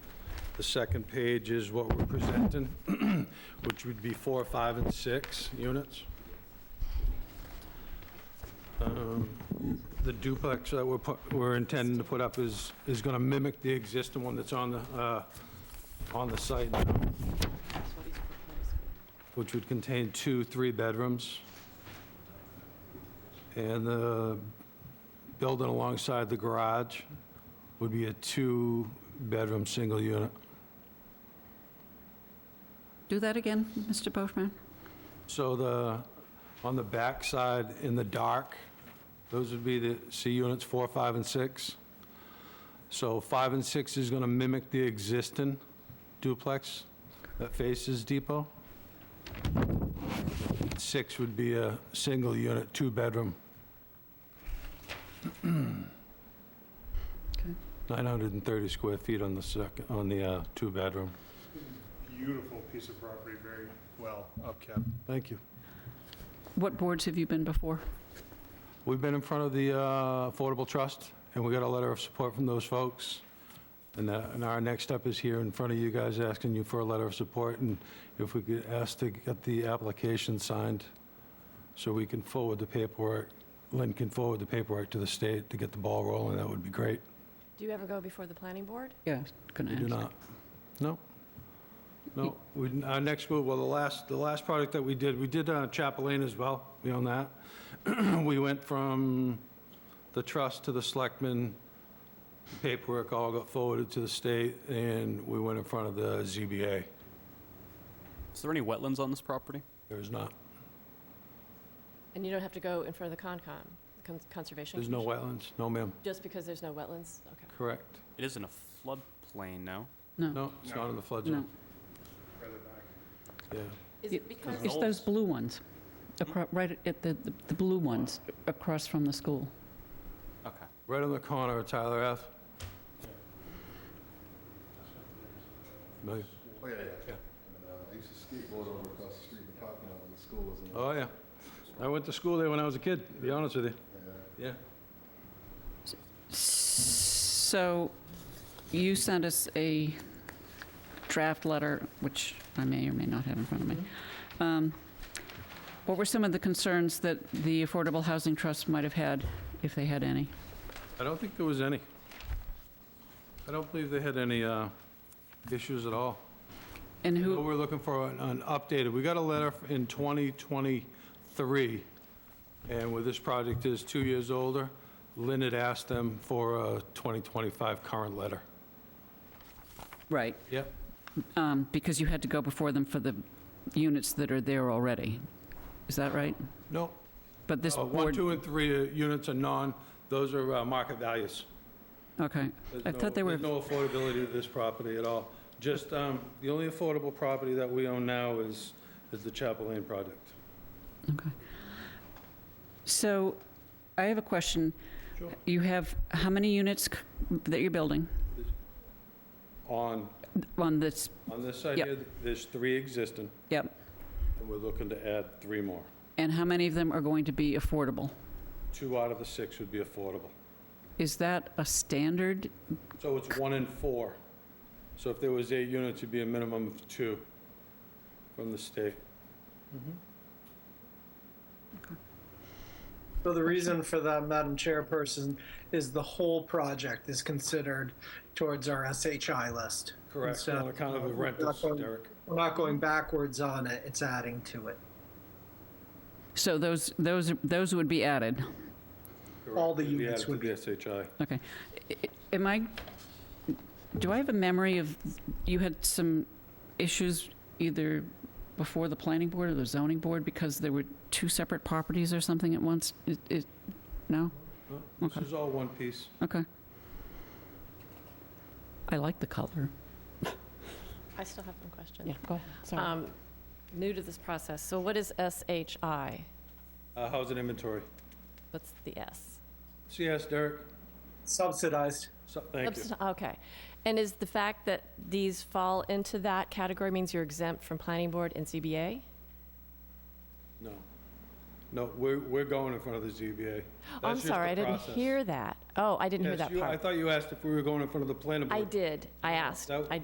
The second page is what we're presenting, which would be four, five, and six units. Um, The duplex that we're, pu- we're intending to put up is, is going to mimic the existing one that's on the, uh, on the site now, That's what he's proposing. which would contain two, three bedrooms. And the building alongside the garage would be a two-bedroom, single unit. Do that again, Mr. Boschman? So the, on the back side in the dark, those would be the C units four, five, and six. So five and six is going to mimic the existing duplex that faces Depot. Six would be a single unit, two-bedroom. 930 square feet on the second, on the uh, two-bedroom. Beautiful piece of property, very well upkept. Thank you. What boards have you been before? We've been in front of the uh, Affordable Trust, and we got a letter of support from those folks. And uh, and our next step is here in front of you guys, asking you for a letter of support, and if we could ask to get the application signed, so we can forward the paperwork, Lynn can forward the paperwork to the state to get the ball rolling, that would be great. Do you ever go before the planning board? Yeah, I was gonna We ask. do not. No. No, we, didn't- our next move, well, the last, the last project that we did, we did uh, Chapel Lane as well, we own that. We went from the trust to the selectmen, paperwork all got forwarded to the state, and we went in front of the ZBA. Is there any wetlands on this property? There is not, And you don't have to go in front of the Concom, Con- Conservation? there's no Commission? wetlands, no ma'am, Just because there's no wetlands? Okay. correct. It is in a floodplain now. No, No, it's not in the flood no. zone, Further back. yeah. Is it because, It's those blue ones, acro- right at the, the- the blue ones across from the school. Okay. Right on the corner of Tyler F. Familiar? Oh, yeah, yeah. And, uh, I used to skateboard over across the street in the parking lot when the school was in. there. Oh, yeah. I went to school there when I was a kid, to be honest with you. Yeah. So you sent us a draft letter, which I may or may not have in front of me. Um, What were some of the concerns that the Affordable Housing Trust might have had, if they had any? I don't think there was any. I don't believe they had any uh, issues at all. And What who, we're looking for, an- an updated, we got a letter in 2023, and where this project is two years older, Lynn had asked them for a 2025 current letter. right, Yep. um, because you had to go before them for the units that are there already. Is that right? No, But this uh, one, board, two, and three uh, units are non, those are uh, market values. okay. There's I thought no- they were- There's no affordability to this property at all. Just, um, the only affordable property that we own now is, is the Chapel Lane project. Okay. So I have a question. Sure. You have, how many units c- that you're building On, on this? on this side Yep. here, there's three existing, Yep. and we're looking to add three more. And how many of them are going to be affordable? Two out of the six would be affordable. Is that a standard? So it's one in four. So if there was eight units, it'd be a minimum of two from the state. So the reason for that, Madam Chairperson, is the whole project is considered towards our SHI list. Correct, So on account of the we're not rentals, going- Derek. We're not going backwards on it, it's adding to it. So those, those, those would be added. All the It'd be units added to would be- the SHI. Okay. I- I- Am I, do I have a memory of, you had some issues either before the planning board or the zoning board because there were two separate properties or something at once? It- it- No? No, This Okay. is all one piece. Okay. I like the color. I still have one question. go ahead, Um, New to this process, so what is SHI? Uh, How's an inventory? What's the S? CS, Derek? Subsidized. So- Thank you. Subs- Okay. And is the fact that these fall into that category means you're exempt from planning board and CBA? No. No, we're, we're going in front of the ZBA. I'm That's just sorry, the I didn't process. hear that. Oh, I didn't hear Yes, that you- I part. thought you asked if we were going in front of the planning board. I did. I asked. That- I